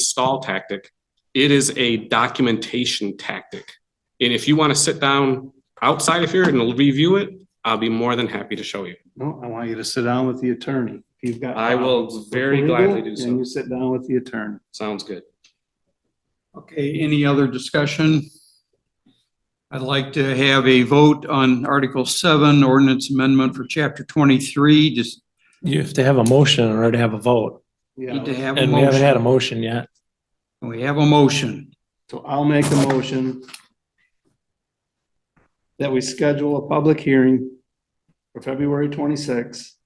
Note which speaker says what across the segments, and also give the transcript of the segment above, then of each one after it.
Speaker 1: stall tactic. It is a documentation tactic. And if you want to sit down outside of here and review it, I'll be more than happy to show you. Uh,
Speaker 2: No, I want you to sit down with the attorney. If you've got.
Speaker 1: I will
Speaker 2: problems with
Speaker 1: very
Speaker 2: legal,
Speaker 1: gladly do
Speaker 2: And
Speaker 1: so.
Speaker 2: you sit down with the attorney.
Speaker 1: Sounds good.
Speaker 3: Okay, any other discussion? I'd like to have a vote on Article seven, ordinance amendment for chapter twenty-three, just
Speaker 4: You have to have a motion in order to have a vote,
Speaker 3: need to
Speaker 2: Yeah,
Speaker 3: have a
Speaker 4: and we haven't had a
Speaker 3: motion.
Speaker 4: motion yet.
Speaker 3: We have a motion.
Speaker 2: so I'll make a motion that we schedule a public hearing for February twenty-sixth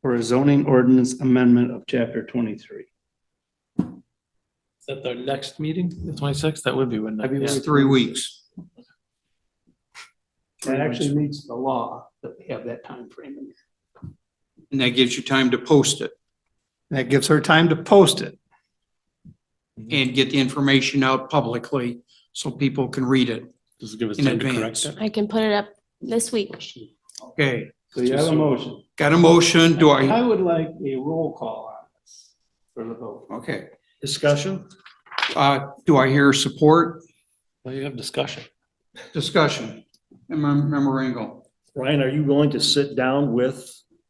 Speaker 2: for a zoning ordinance amendment of chapter twenty-three.
Speaker 4: At the next meeting, the twenty-sixth, that would be when.
Speaker 3: It's three weeks.
Speaker 2: That actually meets the law that we have that time frame. in.
Speaker 3: And that gives you time to post it
Speaker 2: That gives her time to post it.
Speaker 3: and get the information out publicly so people can read it
Speaker 4: Just give us
Speaker 3: in advance.
Speaker 5: I can put it up this week.
Speaker 3: Okay,
Speaker 2: So you have a motion.
Speaker 3: got a motion? Do
Speaker 2: I
Speaker 3: I?
Speaker 2: would like a roll call on this for the vote.
Speaker 3: Okay,
Speaker 4: Discussion?
Speaker 3: uh, do I hear support?
Speaker 4: Well, you have discussion.
Speaker 3: Discussion? Member Member Ringo?
Speaker 6: Ryan, are you going to sit down with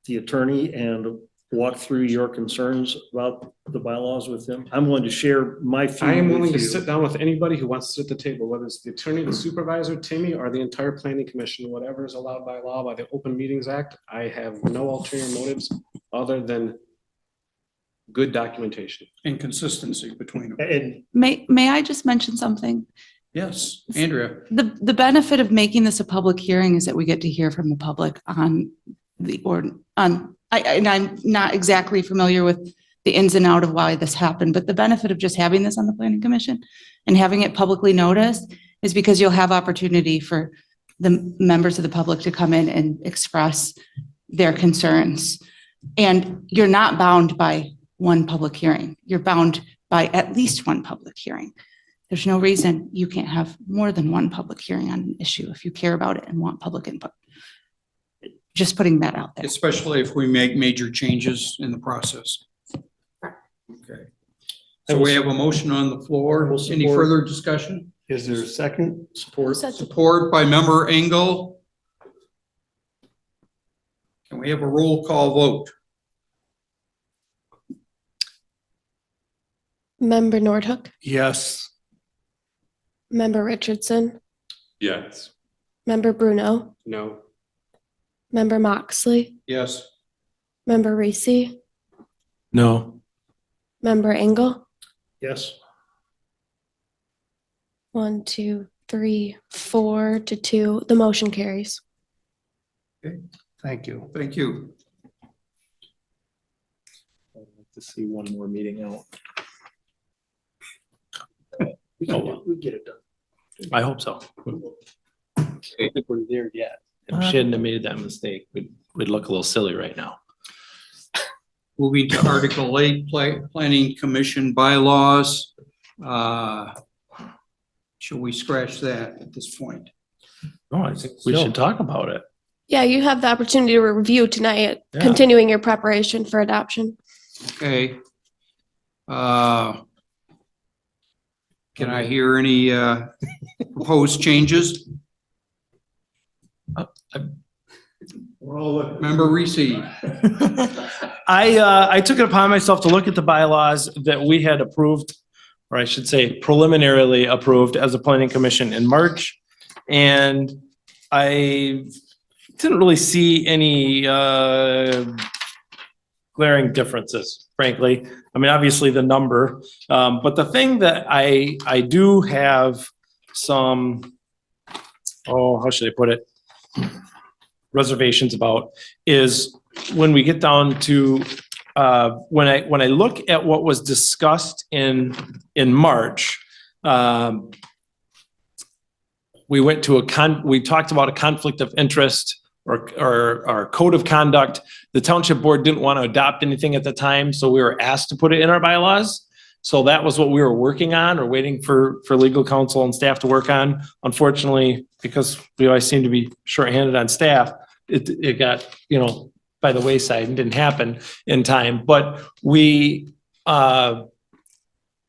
Speaker 6: the attorney and walk through your concerns about the bylaws with him? I'm willing to share my few
Speaker 1: I am willing to
Speaker 6: with you.
Speaker 1: sit down with anybody who wants to sit at the table, whether it's the attorney, the supervisor, Timmy, or the entire planning commission, whatever is allowed by law by the Open Meetings Act. I have no ulterior motives other than good documentation.
Speaker 3: Inconsistency between them.
Speaker 6: And
Speaker 7: May, may I just mention something?
Speaker 3: Yes, Andrea?
Speaker 7: The, the benefit of making this a public hearing is that we get to hear from the public on the ord, on, I, I- and I'm not exactly familiar with the ins and out of why this happened, but the benefit of just having this on the planning commission and having it publicly noticed is because you'll have opportunity for the members of the public to come in and express their concerns. And you're not bound by one public hearing. You're bound by at least one public hearing. There's no reason you can't have more than one public hearing on an issue if you care about it and want public input. Just putting that out there.
Speaker 3: Especially if we make major changes in the process. Okay. So we have a motion on the floor.
Speaker 6: We'll
Speaker 3: Any
Speaker 6: support.
Speaker 3: further discussion?
Speaker 2: Is there a second?
Speaker 6: support,
Speaker 3: Support by member Engel. Can we have a roll call vote?
Speaker 5: Member Nordhook,
Speaker 3: Yes.
Speaker 5: member Richardson,
Speaker 1: Yes.
Speaker 5: member Bruno,
Speaker 1: No.
Speaker 5: member Moxley,
Speaker 3: Yes.
Speaker 5: member Reese,
Speaker 4: No.
Speaker 5: member Engel.
Speaker 6: yes,
Speaker 5: One, two, three, four to two. The motion carries.
Speaker 2: Thank you.
Speaker 3: Thank you.
Speaker 4: To see one more meeting out.
Speaker 6: we
Speaker 4: Oh, wow.
Speaker 6: can- we get it done.
Speaker 4: I hope so.
Speaker 6: I don't think we're there yet.
Speaker 4: If she hadn't have made that mistake, we'd, we'd look a little silly right now.
Speaker 3: Moving to Article eight, Pla- Planning Commission bylaws. Uh, Shall we scratch that at this point?
Speaker 4: No, I think we should talk about it.
Speaker 5: Yeah, you have the opportunity to review tonight,
Speaker 4: Yeah.
Speaker 5: continuing your preparation for adoption.
Speaker 3: Okay. Uh, Can I hear any uh, proposed changes? Member Reese?
Speaker 4: I, uh, I took it upon myself to look at the bylaws that we had approved, or I should say preliminarily approved as a planning commission in March. And I didn't really see any, uh, glaring differences, frankly. I mean, obviously the number, um, but the thing that I, I do have some, oh, how should I put it? Reservations about is when we get down to, uh, when I, when I look at what was discussed in, in March, um, we went to a con, we talked about a conflict of interest or, or, or code of conduct. The township board didn't want to adopt anything at the time, so we were asked to put it in our bylaws. So that was what we were working on or waiting for, for legal counsel and staff to work on. Unfortunately, because we always seem to be shorthanded on staff, it, it got, you know, by the wayside and didn't happen in time, but we, uh,